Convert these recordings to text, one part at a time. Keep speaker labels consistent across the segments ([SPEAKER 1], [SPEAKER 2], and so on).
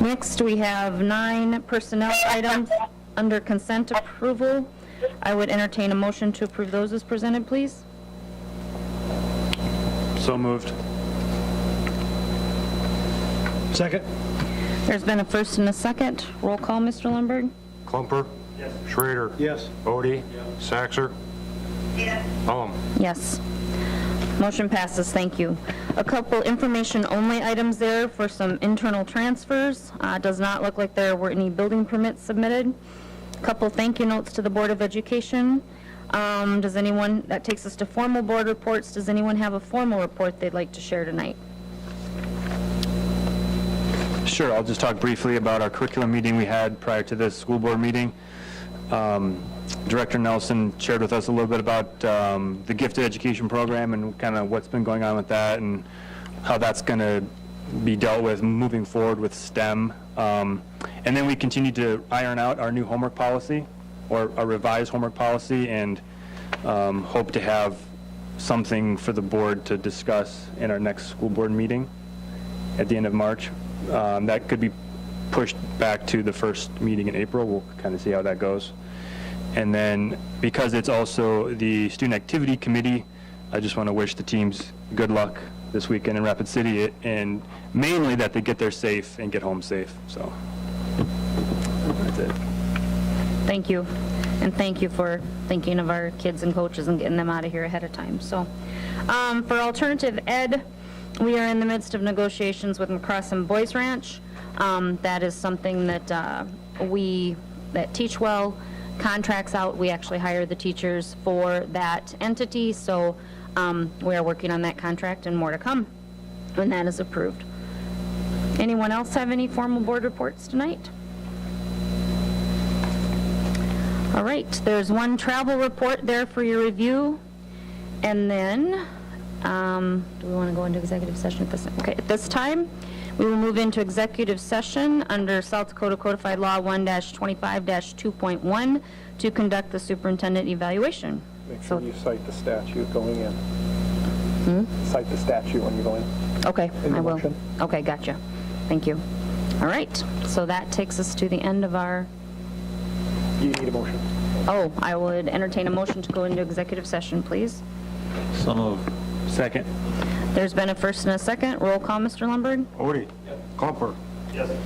[SPEAKER 1] Next, we have nine personnel items under consent approval. I would entertain a motion to approve those as presented, please.
[SPEAKER 2] So moved.
[SPEAKER 3] Second?
[SPEAKER 1] There's been a first and a second. Roll call, Mr. Lundberg.
[SPEAKER 4] Klumper? Schrader?
[SPEAKER 3] Yes.
[SPEAKER 4] Odie? Saxor? Yes.
[SPEAKER 1] Yes. Motion passes, thank you. A couple information-only items there for some internal transfers. Uh, Does not look like there were any building permits submitted. Couple thank you notes to the Board of Education. Um, Does anyone, that takes us to formal board reports. Does anyone have a formal report they'd like to share tonight?
[SPEAKER 2] Sure, I'll just talk briefly about our curriculum meeting we had prior to this school board meeting. Um, Director Nelson shared with us a little bit about um, the gifted education program and kind of what's been going on with that and how that's going to be dealt with moving forward with STEM. Um, And then we continued to iron out our new homework policy, or a revised homework policy, and um, hope to have something for the board to discuss in our next school board meeting at the end of March. Um, That could be pushed back to the first meeting in April. We'll kind of see how that goes. And then, because it's also the Student Activity Committee, I just want to wish the teams good luck this weekend in Rapid City, it- and mainly that they get there safe and get home safe, so. That's it.
[SPEAKER 1] Thank you, and thank you for thinking of our kids and coaches and getting them out of here ahead of time, so. um, For alternative ed, we are in the midst of negotiations with McCrossin Boys Ranch. Um, That is something that uh, we, that Teach Well contracts out, we actually hire the teachers for that entity, so um, we are working on that contract and more to come when that is approved. Anyone else have any formal board reports tonight? All right, there's one travel report there for your review. And then, um, do we want to go into executive session at this, okay, at this time, we will move into executive session under South Dakota Codified Law 1-25-2.1 to conduct the superintendent evaluation.
[SPEAKER 5] Make
[SPEAKER 1] So-
[SPEAKER 5] sure you cite the statute going in. Cite the statute when you go in.
[SPEAKER 1] Okay,
[SPEAKER 5] In the
[SPEAKER 1] I will.
[SPEAKER 5] motion.
[SPEAKER 1] Okay, gotcha. Thank you. All right, so that takes us to the end of our,
[SPEAKER 5] You need a motion.
[SPEAKER 1] oh, I would entertain a motion to go into executive session, please.
[SPEAKER 3] So moved.
[SPEAKER 2] Second.
[SPEAKER 1] There's been a first and a second. Roll call, Mr. Lundberg.
[SPEAKER 4] Odie? Klumper?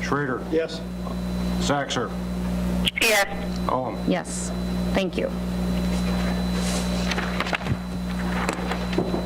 [SPEAKER 4] Schrader?
[SPEAKER 3] Yes.
[SPEAKER 4] Saxor? Yes.
[SPEAKER 1] Yes, thank you.